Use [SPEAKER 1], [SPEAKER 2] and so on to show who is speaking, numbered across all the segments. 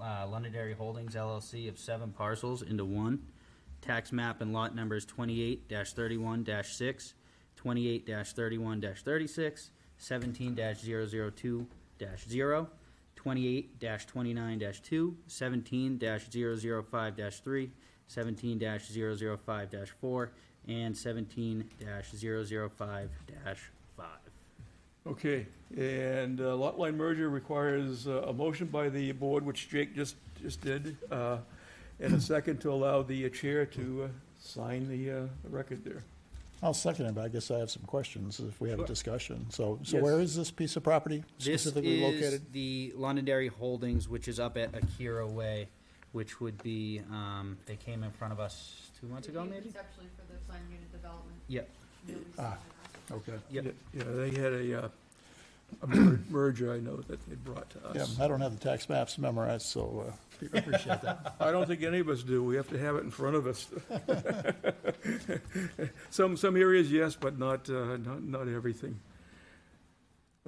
[SPEAKER 1] uh, Londonderry Holdings LLC of seven parcels into one. Tax map and lot numbers twenty-eight thirty-one 6 28 thirty-one 36 36 17 2 0 28 twenty-nine 2 17 5 3 17 5 four, and seventeen 5 five.
[SPEAKER 2] Okay, and uh, lot line merger requires uh, a motion by the board, which Jake just, just did, uh, and a second to allow the chair to uh, sign the uh, record there.
[SPEAKER 3] I'll second it, but I guess I have some questions if we have a
[SPEAKER 2] Sure.
[SPEAKER 3] discussion. So, so
[SPEAKER 2] Yes.
[SPEAKER 3] where is this piece of property
[SPEAKER 1] This
[SPEAKER 3] specifically
[SPEAKER 1] is
[SPEAKER 3] located?
[SPEAKER 1] the Londonderry Holdings, which is up at Akira Way, which would be, um, they came in front of us two months ago, maybe?
[SPEAKER 4] It's actually for the planned unit development.
[SPEAKER 1] Yep,
[SPEAKER 4] Nobody's
[SPEAKER 3] Ah.
[SPEAKER 4] on it.
[SPEAKER 3] Okay.
[SPEAKER 1] Yep.
[SPEAKER 2] Yeah, they had a, uh, a mer- merger, I know, that they brought to
[SPEAKER 3] Yeah,
[SPEAKER 2] us.
[SPEAKER 3] I don't have the tax maps memorized, so uh, I appreciate that.
[SPEAKER 2] I don't think any of us do, we have to have it in front of us. Some, some areas, yes, but not, uh, not, not everything.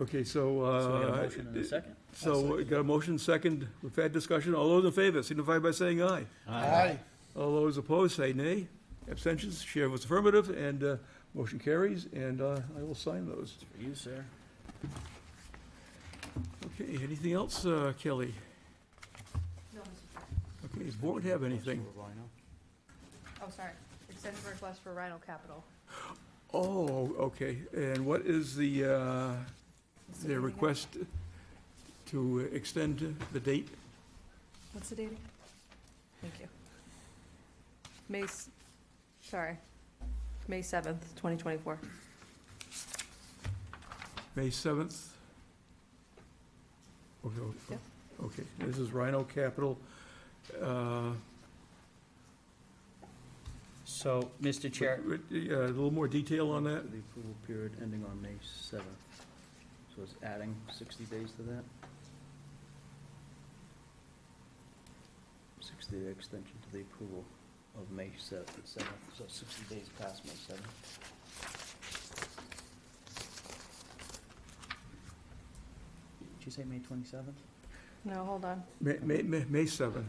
[SPEAKER 2] Okay, so.
[SPEAKER 1] so we have
[SPEAKER 2] uh,
[SPEAKER 1] a motion and a second.
[SPEAKER 2] So, we got a motion, second, we've had discussion, all those in favor signify by saying aye.
[SPEAKER 3] Aye.
[SPEAKER 2] All those opposed say nay. Abstentions, chair was affirmative, and uh, motion carries, and uh, I will sign those.
[SPEAKER 1] For you, sir.
[SPEAKER 2] Okay, anything else, uh, Kelly?
[SPEAKER 4] No, Mr. Chair.
[SPEAKER 2] Okay, does board have anything?
[SPEAKER 4] Oh, sorry. Extension request for Rhino Capital.
[SPEAKER 2] Oh, okay, and what is the, uh,
[SPEAKER 4] What's the date
[SPEAKER 2] their
[SPEAKER 4] again?
[SPEAKER 2] request to extend the date?
[SPEAKER 4] What's the date? again? Thank you. May, s- sorry, May seventh, twenty twenty-four.
[SPEAKER 2] May 7th? Okay,
[SPEAKER 4] Yeah.
[SPEAKER 2] Okay, okay. this is Rhino Capital. Uh,
[SPEAKER 1] So, Mr. Chair,
[SPEAKER 2] Uh, A little more detail on that?
[SPEAKER 5] The approval period ending on May 7th. So it's adding 60 days to that? 60-day extension to the approval of May 7th, 7th, so 60 days past May 7th.
[SPEAKER 1] did you say May twenty-seventh?
[SPEAKER 4] No, hold on,
[SPEAKER 2] May, May, May- May 7th.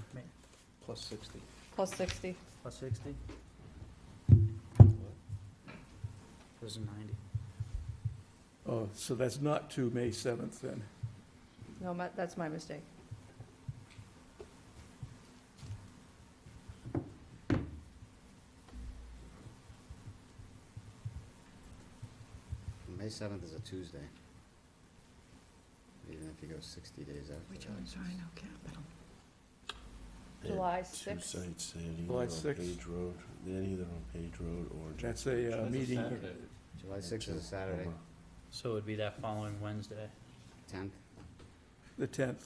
[SPEAKER 5] Plus 60.
[SPEAKER 4] plus sixty.
[SPEAKER 1] Plus sixty? Was it ninety?
[SPEAKER 2] Oh, so that's not to May 7th then?
[SPEAKER 4] No, my- that's my mistake.
[SPEAKER 6] May seventh is a Tuesday. Even if you go sixty days after. that, it's just-
[SPEAKER 4] Capital.
[SPEAKER 7] They had
[SPEAKER 4] July
[SPEAKER 7] Two
[SPEAKER 4] sixth.
[SPEAKER 7] sites, they had either
[SPEAKER 2] July
[SPEAKER 7] on
[SPEAKER 2] 6th.
[SPEAKER 7] Page Road, they had either on Page Road or. Jack-
[SPEAKER 2] That's a uh, meeting.
[SPEAKER 6] July sixth is a Saturday,
[SPEAKER 7] Omaha.
[SPEAKER 1] So it would be that following Wednesday.
[SPEAKER 6] tenth.
[SPEAKER 2] The 10th.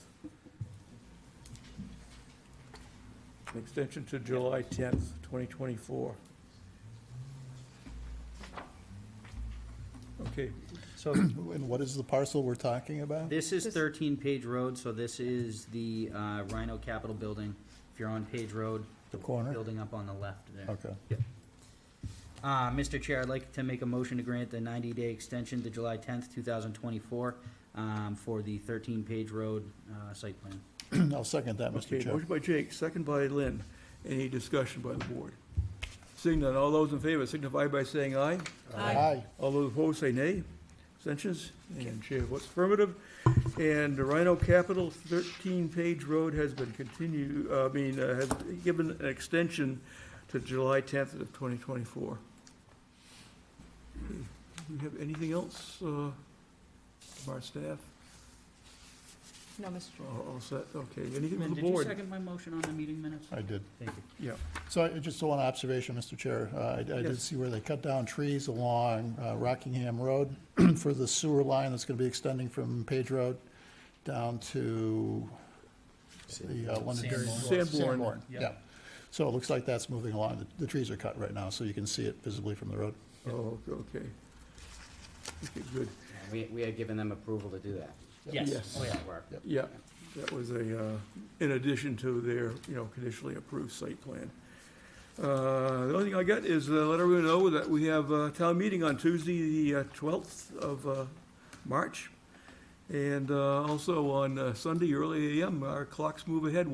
[SPEAKER 2] An extension to July 10th, 2024. Okay,
[SPEAKER 1] So
[SPEAKER 3] And what is the parcel we're talking about?
[SPEAKER 1] This is
[SPEAKER 4] This-
[SPEAKER 1] thirteen Page Road, so this is the uh, Rhino Capital Building. If you're on Page Road.
[SPEAKER 3] The corner?
[SPEAKER 1] Building up on the left there.
[SPEAKER 3] Okay.
[SPEAKER 1] Uh, Mr. Chair, I'd like to make a motion to grant the ninety-day extension to July tenth, two thousand twenty-four, um, for the thirteen Page Road, uh, site plan.
[SPEAKER 3] I'll second that, Mr.
[SPEAKER 2] okay,
[SPEAKER 3] Chair.
[SPEAKER 2] motion by Jake, second by Lynn. Any discussion by the board? Seeing none, all those in favor signify by saying aye.
[SPEAKER 3] Aye.
[SPEAKER 2] All those opposed say nay. Abstentions? And chair votes affirmative. And Rhino Capital, 13 Page Road has been continued, I mean, uh, has given an extension to July 10th of 2024. Okay. Do we have anything else uh, from our staff?
[SPEAKER 4] No, Mr. Chair.
[SPEAKER 2] All all set? Okay, anything from
[SPEAKER 1] Lynn,
[SPEAKER 2] the
[SPEAKER 1] did you
[SPEAKER 2] board?
[SPEAKER 1] second my motion on the meeting minutes?
[SPEAKER 3] I did.
[SPEAKER 1] Thank you.
[SPEAKER 2] Yeah.
[SPEAKER 3] So I just one observation, Mr. Chair. Uh, I I did
[SPEAKER 2] Yes.
[SPEAKER 3] see where they cut down trees along uh, Rockingham Road for the sewer line that's going to be extending from Page Road down to the uh, Londonderry.
[SPEAKER 2] Sanborn. Sanborn.
[SPEAKER 3] Yeah. So it looks like that's moving along. The- The trees are cut right now, so you can see it visibly from the road.
[SPEAKER 2] Oh, okay. Okay, good.
[SPEAKER 6] We, we had given them approval to do that.
[SPEAKER 1] Yes,
[SPEAKER 2] Yes.
[SPEAKER 1] oh yeah.
[SPEAKER 6] Work.
[SPEAKER 2] Yeah, that was a, uh, in addition to their, you know, conditionally approved site plan. Uh, The only thing I got is uh, let everyone know that we have a town meeting on Tuesday, the uh, twelfth of uh, March. And uh, also on uh, Sunday, early AM, our clocks move ahead